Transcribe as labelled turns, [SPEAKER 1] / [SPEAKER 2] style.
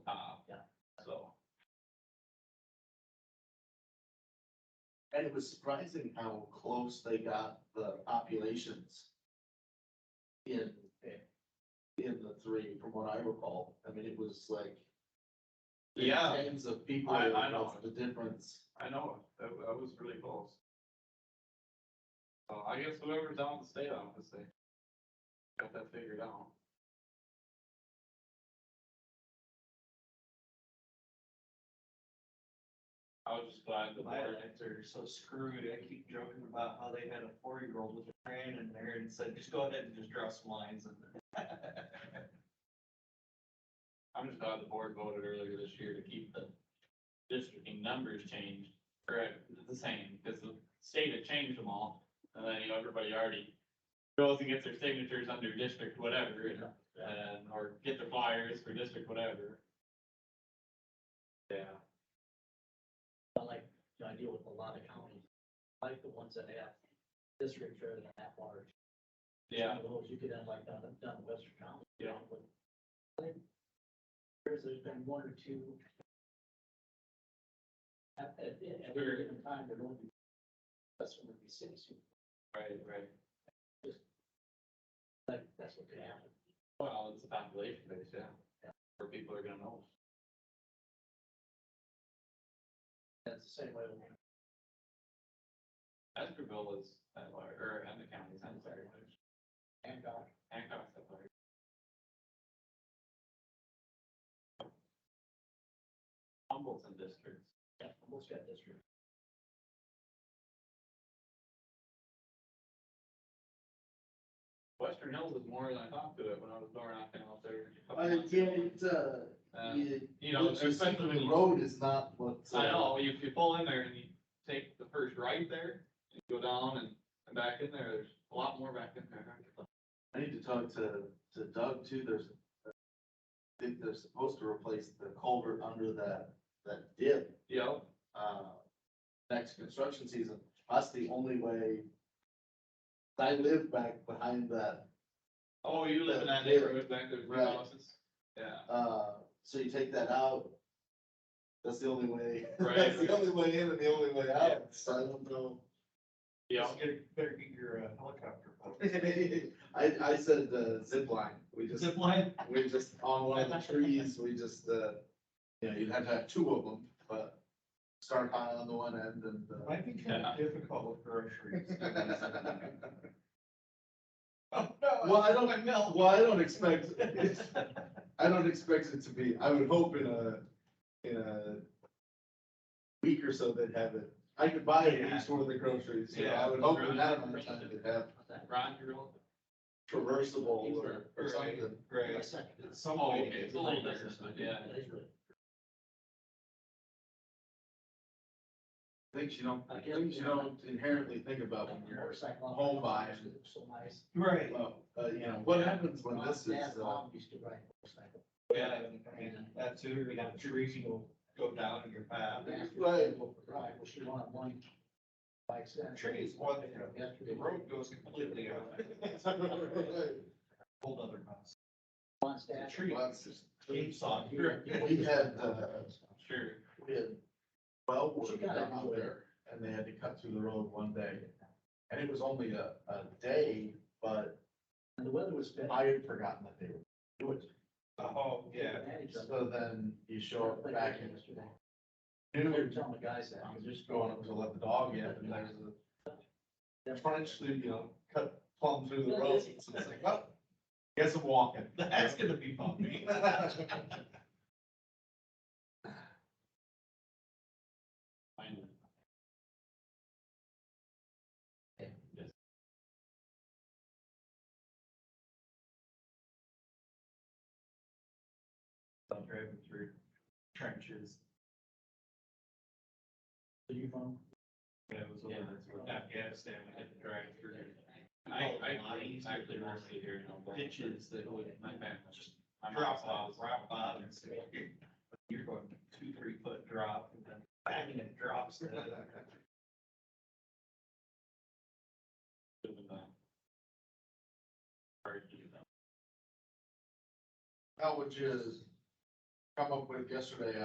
[SPEAKER 1] Uh,
[SPEAKER 2] And it was surprising how close they got the populations in, in the three, from what I recall. I mean, it was like
[SPEAKER 1] Yeah.
[SPEAKER 2] tens of people,
[SPEAKER 1] I- I know.
[SPEAKER 2] was the difference.
[SPEAKER 1] I know, it. that, that was really close. So I guess whoever's down with the state office, they got that figured out. I was just glad the
[SPEAKER 3] My
[SPEAKER 1] board,
[SPEAKER 3] legs are so screwed, I keep joking about how they had a four-year-old with a crayon in there and said, just go ahead and just draw some lines in there.
[SPEAKER 1] I'm just glad the board voted earlier this year to keep the districting numbers changed, or the same, because the state had changed them all. And then, you know, everybody already goes and gets their signatures under district whatever, and
[SPEAKER 4] uh,
[SPEAKER 1] and, or get the flyers for district whatever. Yeah.
[SPEAKER 4] I like, you know, I deal with a lot of counties, I like the ones that have districts rather than that large.
[SPEAKER 1] Yeah,
[SPEAKER 4] Some of those you could end like down, down in Western County.
[SPEAKER 1] Yeah.
[SPEAKER 4] you know, with- I think There's, there's been one or two. At, at, at
[SPEAKER 1] Sure.
[SPEAKER 4] every given time, there won't be. That's when there'd be cities, who-
[SPEAKER 1] right, right.
[SPEAKER 4] like, that's what could happen.
[SPEAKER 1] Well, it's a population base, yeah. Where people are gonna know.
[SPEAKER 4] That's the same way. with-
[SPEAKER 1] Eskerville is that large, or and the county's not that large.
[SPEAKER 4] And, uh,
[SPEAKER 1] Hancock's that large. Humboldt's in districts.
[SPEAKER 4] yeah, most got districts.
[SPEAKER 1] Western Hills is more than I thought to it when I was door knocking out there. a couple
[SPEAKER 2] I
[SPEAKER 1] months ago.
[SPEAKER 2] can't, uh,
[SPEAKER 1] Um,
[SPEAKER 2] you,
[SPEAKER 1] You know,
[SPEAKER 2] what you see
[SPEAKER 1] especially
[SPEAKER 2] from
[SPEAKER 1] when
[SPEAKER 2] the
[SPEAKER 1] you-
[SPEAKER 2] road is not what. uh,
[SPEAKER 1] I know, you, you pull in there and you take the first right there, and you go down and, and back in there, there's a lot more back in there.
[SPEAKER 2] I need to talk to, to Doug too, there's, I think they're supposed to replace the culvert under that, that dip,
[SPEAKER 1] Yep,
[SPEAKER 2] uh, next construction season. That's the only way, I live back behind that,
[SPEAKER 1] oh, you live in that
[SPEAKER 2] Yeah.
[SPEAKER 1] neighborhood back there, three
[SPEAKER 2] Right.
[SPEAKER 1] houses? Yeah,
[SPEAKER 2] uh, so you take that out, that's the only way,
[SPEAKER 1] Right,
[SPEAKER 2] that's
[SPEAKER 1] right.
[SPEAKER 2] the only way in and the only way
[SPEAKER 1] Yeah.
[SPEAKER 2] out, so I don't know.
[SPEAKER 1] yeah,
[SPEAKER 3] Just get- Better get your uh, helicopter.
[SPEAKER 2] I, I said the zip line, we just.
[SPEAKER 3] Zip line?
[SPEAKER 2] We just, on one of the trees, we just, uh, you know, you'd have to have two of them, but start high on the one end and, uh.
[SPEAKER 3] Might be kind of difficult with groceries.
[SPEAKER 2] Well, I don't, well, I don't expect, I don't expect it to be, I would hope in a, in a week or so they'd have it. I could buy at least one of the groceries, you know, I would hope in that amount of time they'd have
[SPEAKER 4] What's that?
[SPEAKER 1] Ron, you're old.
[SPEAKER 2] traversable or, or something.
[SPEAKER 3] Right.
[SPEAKER 4] My second.
[SPEAKER 3] Some
[SPEAKER 1] Oh,
[SPEAKER 3] way
[SPEAKER 1] okay,
[SPEAKER 3] to
[SPEAKER 1] it's a little
[SPEAKER 3] get-
[SPEAKER 1] different, but yeah.
[SPEAKER 4] That is really-
[SPEAKER 2] Things you don't, things you don't inherently think about when you're,
[SPEAKER 4] Motorcycle.
[SPEAKER 2] home buy.
[SPEAKER 4] So nice.
[SPEAKER 3] Right.
[SPEAKER 2] well, uh, you know, what happens when
[SPEAKER 4] My
[SPEAKER 2] this
[SPEAKER 4] dad,
[SPEAKER 2] is, uh.
[SPEAKER 4] mom used to ride motorcycle.
[SPEAKER 3] Yeah, and that too, we have trees will go down in your path.
[SPEAKER 2] Right.
[SPEAKER 4] Right, well, she wanted one bike set.
[SPEAKER 3] Trees, one, you know, the
[SPEAKER 4] Yesterday,
[SPEAKER 3] road goes completely out. Whole other mess.
[SPEAKER 4] one's
[SPEAKER 3] The
[SPEAKER 4] dad.
[SPEAKER 3] tree.
[SPEAKER 2] Lots of-
[SPEAKER 3] Game saw.
[SPEAKER 4] Here, you know,
[SPEAKER 2] We had, uh,
[SPEAKER 1] Sure.
[SPEAKER 2] We had twelve
[SPEAKER 4] She
[SPEAKER 2] workers
[SPEAKER 4] got it.
[SPEAKER 2] out there and they had to cut through the road one day. And it was only a, a day, but
[SPEAKER 4] And the weather was bad.
[SPEAKER 2] I had forgotten that they were doing it.
[SPEAKER 3] Oh, yeah.
[SPEAKER 4] Managed them.
[SPEAKER 2] So then you show up
[SPEAKER 4] Played
[SPEAKER 2] back
[SPEAKER 4] hockey
[SPEAKER 2] in.
[SPEAKER 4] yesterday. We were
[SPEAKER 2] noon,
[SPEAKER 4] telling the guys that.
[SPEAKER 2] I'm just going up to let the dog in and there's a trench through, you know, cut plumb through the road. So it's like, "Oh, well, guess I'm walking.
[SPEAKER 3] That's gonna be bumpy.
[SPEAKER 1] Finally. Yes.
[SPEAKER 3] I'm Driving through trenches.
[SPEAKER 4] Are you from?
[SPEAKER 3] Yeah, it was over in Afghanistan, we had to drive through.
[SPEAKER 1] I, I actually mostly here.
[SPEAKER 3] Oh, Pitches that would,
[SPEAKER 1] My back, just
[SPEAKER 3] just
[SPEAKER 1] my
[SPEAKER 3] drop
[SPEAKER 1] mom's house.
[SPEAKER 3] off, rock bottoms. You're going two, three foot drop and then bang, it drops. to the-
[SPEAKER 1] Hard to do that.
[SPEAKER 2] How would you come up with yesterday